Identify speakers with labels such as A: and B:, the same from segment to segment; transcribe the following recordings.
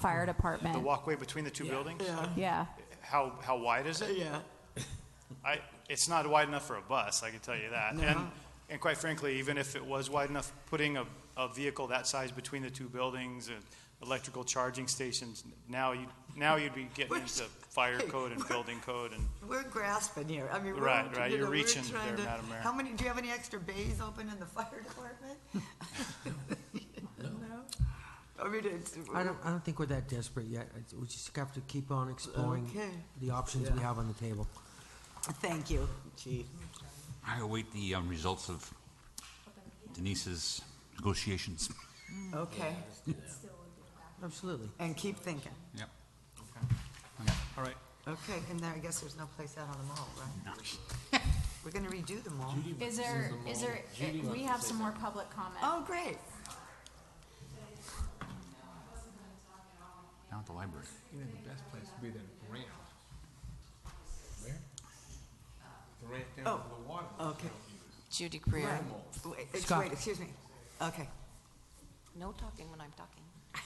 A: fire
B: The
A: department.
B: walkway between the two buildings?
C: Yeah,
A: Yeah,
B: How, how wide is it?
C: yeah.
B: I, it's not wide enough for a bus, I can tell you that. And,
C: No.
B: and quite frankly, even if it was wide enough, putting a, a vehicle that size between the two buildings and electrical charging stations, now you, now you'd be getting
C: We're-
B: into fire code and building code and,
C: We're grasping here. I mean, we're,
B: Right,
C: you
B: right.
C: know,
B: You're
C: we're
B: reaching
C: trying
B: there,
C: to-
B: Madam Mayor.
C: How many, do you have any extra bays open in the fire department? No. I mean, it's,
D: I don't, I don't think we're that desperate yet. It's- We just have to keep on exploring
C: Okay.
D: the options we have on the table.
C: thank you, chief.
E: I await the um, results of Denise's negotiations.
C: Okay,
D: Absolutely.
C: and keep thinking.
E: Yep. Okay. All right.
C: Okay, and then I guess there's no place out on the mall, right? We're gonna redo the mall.
A: is there, is there, we have some more public comment.
C: Oh, great.
E: Down at the library.
F: You know, the best place to be than Durant. Where? Durant
C: Oh.
F: down to the water.
C: Okay.
G: Judy Greer.
C: Right. Wait, ex-
D: Scott.
C: Wait, excuse me. Okay.
G: No talking when I'm talking.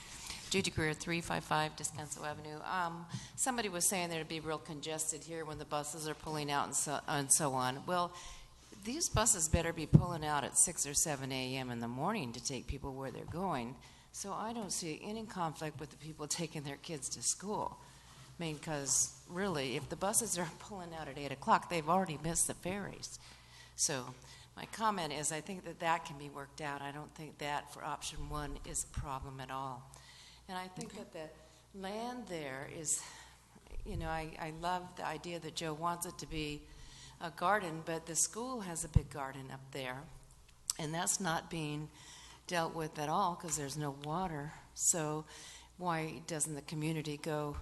G: Judy Greer, 355 Descanso Avenue. Um, Somebody was saying that it'd be real congested here when the buses are pulling out and so, and so on. Well, these buses better be pulling out at 6 or 7 a.m. in the morning to take people where they're going. So I don't see any conflict with the people taking their kids to school. I mean, because really, if the buses are pulling out at 8 o'clock, they've already missed the ferries. So my comment is, I think that that can be worked out. I don't think that for option one is a problem at all. And I think that the land there is, you know, I, I love the idea that Joe wants it to be a garden, but the school has a big garden up there, and that's not being dealt with at all because there's no water. So why doesn't the community go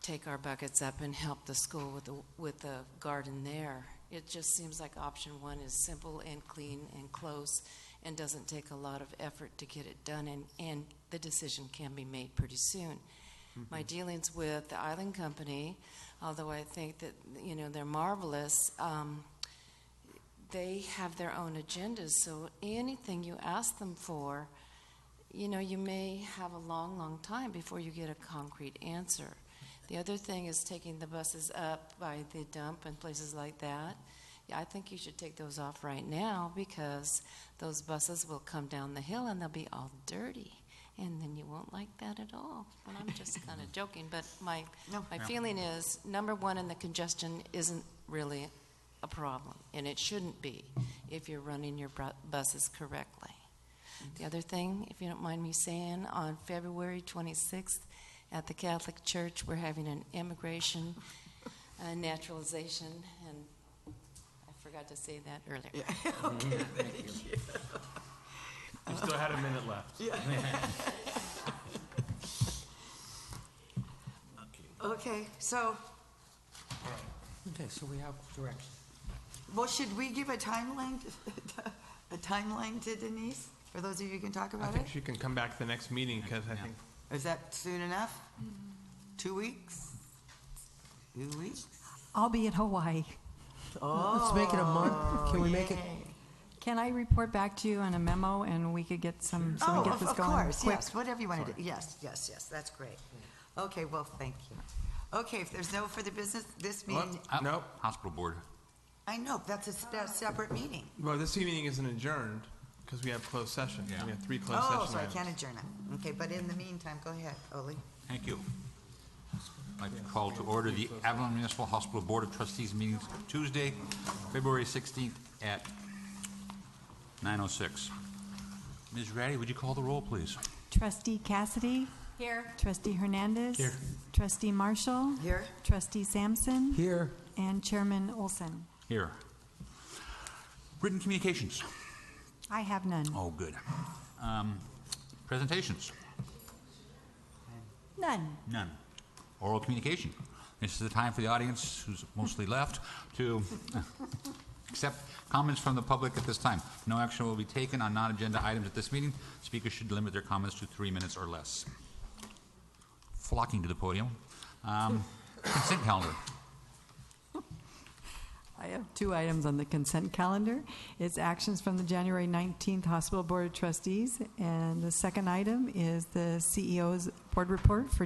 G: take our buckets up and help the school with the, with the garden there? It just seems like option one is simple and clean and close and doesn't take a lot of effort to get it done, and, and the decision can be made pretty soon. My dealings with the Island Company, although I think that, you know, they're marvelous, um, they have their own agendas, so anything you ask them for, you know, you may have a long, long time before you get a concrete answer. The other thing is taking the buses up by the dump and places like that. Yeah, I think you should take those off right now because those buses will come down the hill and they'll be all dirty. And then you won't like that at all. And I'm just kind of joking, but my,
C: No.
G: my feeling is, number one, and the congestion isn't really a problem, and it shouldn't be if you're running your bru- buses correctly. The other thing, if you don't mind me saying, on February 26th at the Catholic Church, we're having an immigration uh, naturalization, and I forgot to say that earlier.
H: We still had a minute left.
C: Okay, so,
D: Okay, so we have direction.
C: well, should we give a timeline, to- a timeline to Denise? For those of you who can talk
F: I
C: about
F: think
C: it?
F: she can come back to the next meeting, because I think
C: Is that soon enough? Two weeks? Two weeks?
I: I'll be in Hawaii.
D: Let's make it a month. Can we make it?
I: Can I report back to you on a memo and we could get some, so
C: Oh,
I: we get
C: of-
I: this
C: of
I: going
C: course,
I: quick?
C: yes, whatever you want to do. Yes, yes, yes, that's great. Okay, well, thank you. Okay, if there's no further business, this meeting,
E: Uh,
F: What? Nope.
E: Hospital board.
C: I know, that's a s- that's a separate meeting.
F: Well, this meeting isn't adjourned, because we have closed session.
E: Yeah.
F: We have three closed session
C: Oh,
F: items.
C: so I can't adjourn it. Okay, but in the meantime, go ahead, Ollie.
E: Thank you. I'd like to call to order the Avalon Municipal Hospital Board of Trustees meeting Tuesday, February 16th at 9:06. Ms. Ratty, would you call the roll, please?
I: Trustee Cassidy,
A: Here,
I: trustee Hernandez. Trustee Marshall,
C: Here?
I: trustee Sampson,
D: Here,
I: and Chairman Olson.
E: Here. Written communications.
I: I have none.
E: Oh, good. Um, Presentations.
I: None.
E: None. Oral communication. This is the time for the audience, who's mostly left, to accept comments from the public at this time. No action will be taken on non-agenda items at this meeting. Speakers should limit their comments to three minutes or less. Flocking to the podium. Um, Consent calendar.
I: I have two items on the consent calendar. It's actions from the January 19th Hospital E Board of Trustees, and the second item is the CEO's board report for